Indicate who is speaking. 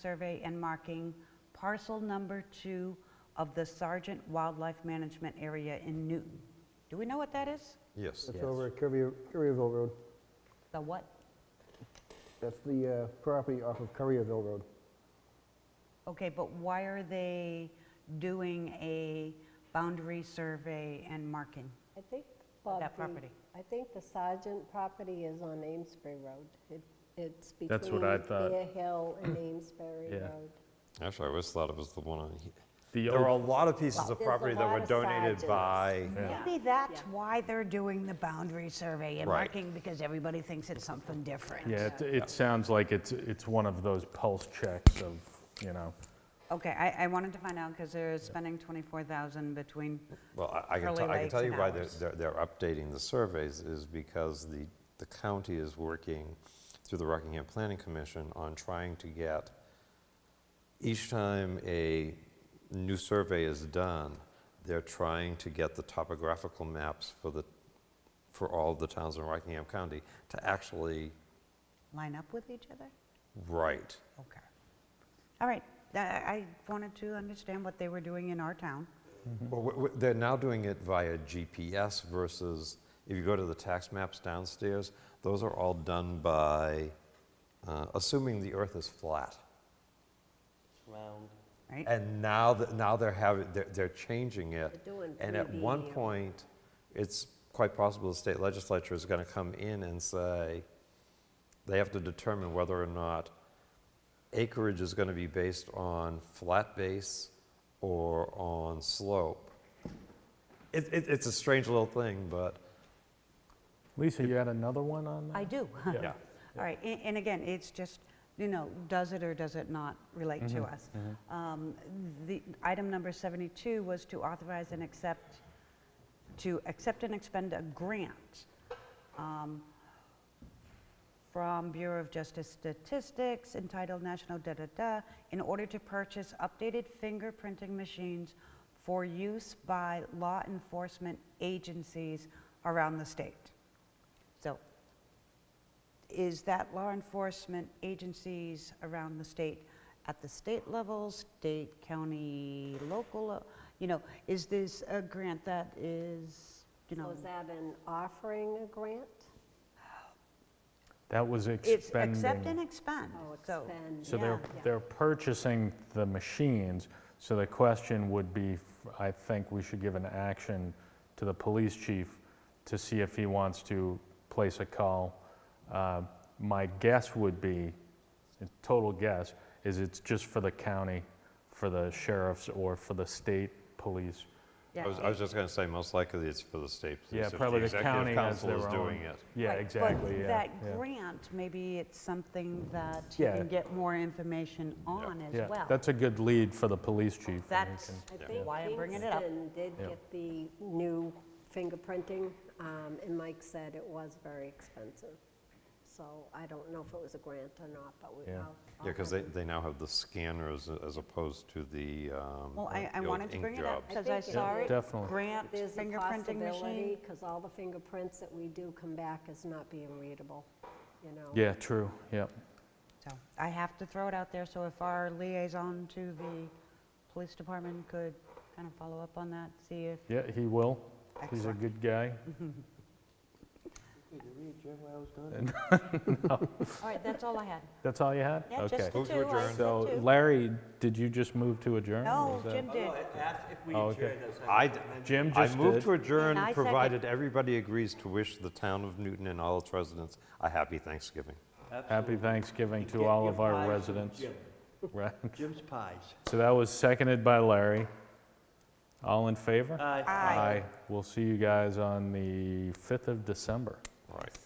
Speaker 1: survey and marking parcel number two of the Sargent Wildlife Management Area in Newton. Do we know what that is?
Speaker 2: Yes.
Speaker 3: That's
Speaker 4: Yes.
Speaker 3: over at Currier- Currierville Road.
Speaker 1: The what?
Speaker 3: That's the uh, property off of Currierville Road.
Speaker 1: Okay, but why are they doing a boundary survey and marking?
Speaker 5: I think, Bob.
Speaker 1: That
Speaker 5: the-
Speaker 1: property.
Speaker 5: I think the Sargent property is on Amesbury Road. It- It's between
Speaker 6: That's what I thought.
Speaker 5: Bear Hill and Amesbury
Speaker 6: Yeah.
Speaker 5: Road.
Speaker 2: Actually, I always thought it was the one on here.
Speaker 6: The
Speaker 2: There were a
Speaker 6: old,
Speaker 2: lot of pieces of
Speaker 5: There's a
Speaker 2: property that
Speaker 5: lot
Speaker 2: were
Speaker 5: of
Speaker 2: donated
Speaker 5: Sargents.
Speaker 2: by,
Speaker 6: Yeah.
Speaker 1: Maybe that's why they're doing the boundary survey and
Speaker 2: Right.
Speaker 1: marking, because everybody thinks it's something different.
Speaker 6: yeah, it, it sounds like it's, it's one of those pulse checks of, you know,
Speaker 1: Okay, I, I wanted to find out, because they're spending 24,000 between,
Speaker 2: well, I- I can,
Speaker 1: Curly
Speaker 2: tell- I can
Speaker 1: Lakes
Speaker 2: tell you
Speaker 1: and
Speaker 2: why they're,
Speaker 1: ours.
Speaker 2: they're they're updating the surveys is because the, the county is working through the Rockingham Planning Commission on trying to get, each time a new survey is done, they're trying to get the topographical maps for the, for all of the towns in Rockingham County to actually
Speaker 1: line up with each other?
Speaker 2: write.
Speaker 1: Okay. All right, I- I wanted to understand what they were doing in our town.
Speaker 2: Well, w- w- they're now doing it via GPS versus, if you go to the tax maps downstairs, those are all done by, uh, assuming the earth is flat.
Speaker 4: Round.
Speaker 1: right?
Speaker 2: And now, th- now they're having, they're, they're changing it.
Speaker 5: They're doing
Speaker 2: And at
Speaker 5: 3D
Speaker 2: one
Speaker 5: and-
Speaker 2: point, it's quite possible the state legislature is gonna come in and say, they have to determine whether or not acreage is gonna be based on flat base or on slope. It, it, it's a strange little thing, but,
Speaker 6: Lisa, you had another one on that?
Speaker 1: I do.
Speaker 2: yeah.
Speaker 1: All right, a- and again, it's just, you know, does it or does it not relate to us? Um, The Item number 72 was to authorize and accept, to accept and expend a grant um, from Bureau of Justice Statistics entitled National Da-da-da in order to purchase updated fingerprinting machines for use by law enforcement agencies around the state. So is that law enforcement agencies around the state, at the state level, state, county, local, uh, you know, is this a grant that is, you
Speaker 5: So
Speaker 1: know,
Speaker 5: is that an offering a grant?
Speaker 6: That was
Speaker 1: it's accept and
Speaker 6: expending.
Speaker 1: expend,
Speaker 5: Oh,
Speaker 1: so.
Speaker 5: expend.
Speaker 6: So they're,
Speaker 1: yeah.
Speaker 6: they're purchasing the machines, so the question would be, f- I think we should give an action to the police chief to see if he wants to place a call. Uh, My guess would be, a total guess, is it's just for the county, for the sheriffs, or for the state police.
Speaker 2: I was, I was just gonna say, most likely it's for the state police.
Speaker 6: Yeah,
Speaker 2: if
Speaker 6: probably the
Speaker 2: executive
Speaker 6: county has
Speaker 2: council
Speaker 6: their
Speaker 2: is
Speaker 6: own.
Speaker 2: doing it.
Speaker 6: Yeah,
Speaker 1: Right,
Speaker 6: exactly,
Speaker 1: But
Speaker 6: yeah. yeah.
Speaker 1: that grant, maybe it's something that you
Speaker 6: Yeah.
Speaker 1: can get more information on
Speaker 6: Yeah,
Speaker 1: as well.
Speaker 6: That's a good lead for the police chief. and he
Speaker 1: That's
Speaker 6: can-
Speaker 5: I think
Speaker 1: why I'm bringing it up.
Speaker 5: Kingston did
Speaker 6: Yeah.
Speaker 5: get the new fingerprinting, um, and Mike said it was very expensive. So I don't know if it was a grant or not, but we, I'll.
Speaker 6: Yeah.
Speaker 2: Yeah,
Speaker 5: I'll
Speaker 2: because they,
Speaker 5: have-
Speaker 2: they now have the scanners a- as opposed to the, um,
Speaker 1: Well, I, I
Speaker 2: the old
Speaker 1: wanted to
Speaker 2: ink
Speaker 1: bring it up
Speaker 2: jobs.
Speaker 1: because I
Speaker 5: think it
Speaker 1: saw
Speaker 5: is.
Speaker 1: it,
Speaker 6: Definitely.
Speaker 1: grant
Speaker 5: There's a
Speaker 1: fingerprinting
Speaker 5: possibility,
Speaker 1: machine.
Speaker 5: because all the fingerprints that we do come back as not being readable, you know?
Speaker 6: Yeah, true, yep.
Speaker 1: So I have to throw it out there, so if our liaison to the police department could kind of follow up on that, see if,
Speaker 6: Yeah, he will. He's a
Speaker 1: Excellent.
Speaker 6: good guy.
Speaker 1: all right, that's all I had.
Speaker 6: That's all you had?
Speaker 1: Yeah, just
Speaker 6: Okay.
Speaker 1: the
Speaker 2: Move to
Speaker 1: two, I
Speaker 2: adjourn.
Speaker 1: said
Speaker 6: So
Speaker 1: two.
Speaker 6: Larry, did you just move to adjourn?
Speaker 1: No,
Speaker 6: Was that-
Speaker 1: Jim did.
Speaker 4: If we
Speaker 6: Oh, okay.
Speaker 4: adjourn those.
Speaker 2: I, d-
Speaker 6: Jim
Speaker 2: I
Speaker 6: just
Speaker 2: move
Speaker 6: did.
Speaker 2: to adjourn,
Speaker 1: And I second.
Speaker 2: provided everybody agrees to wish the town of Newton and all its residents a happy Thanksgiving.
Speaker 6: Happy Thanksgiving to all of our residents. Right.
Speaker 4: Jim's Pies.
Speaker 6: So that was seconded by Larry. All in favor?
Speaker 4: Aye.
Speaker 1: Aye.
Speaker 6: We'll see you guys on the 5th of December.
Speaker 2: Right.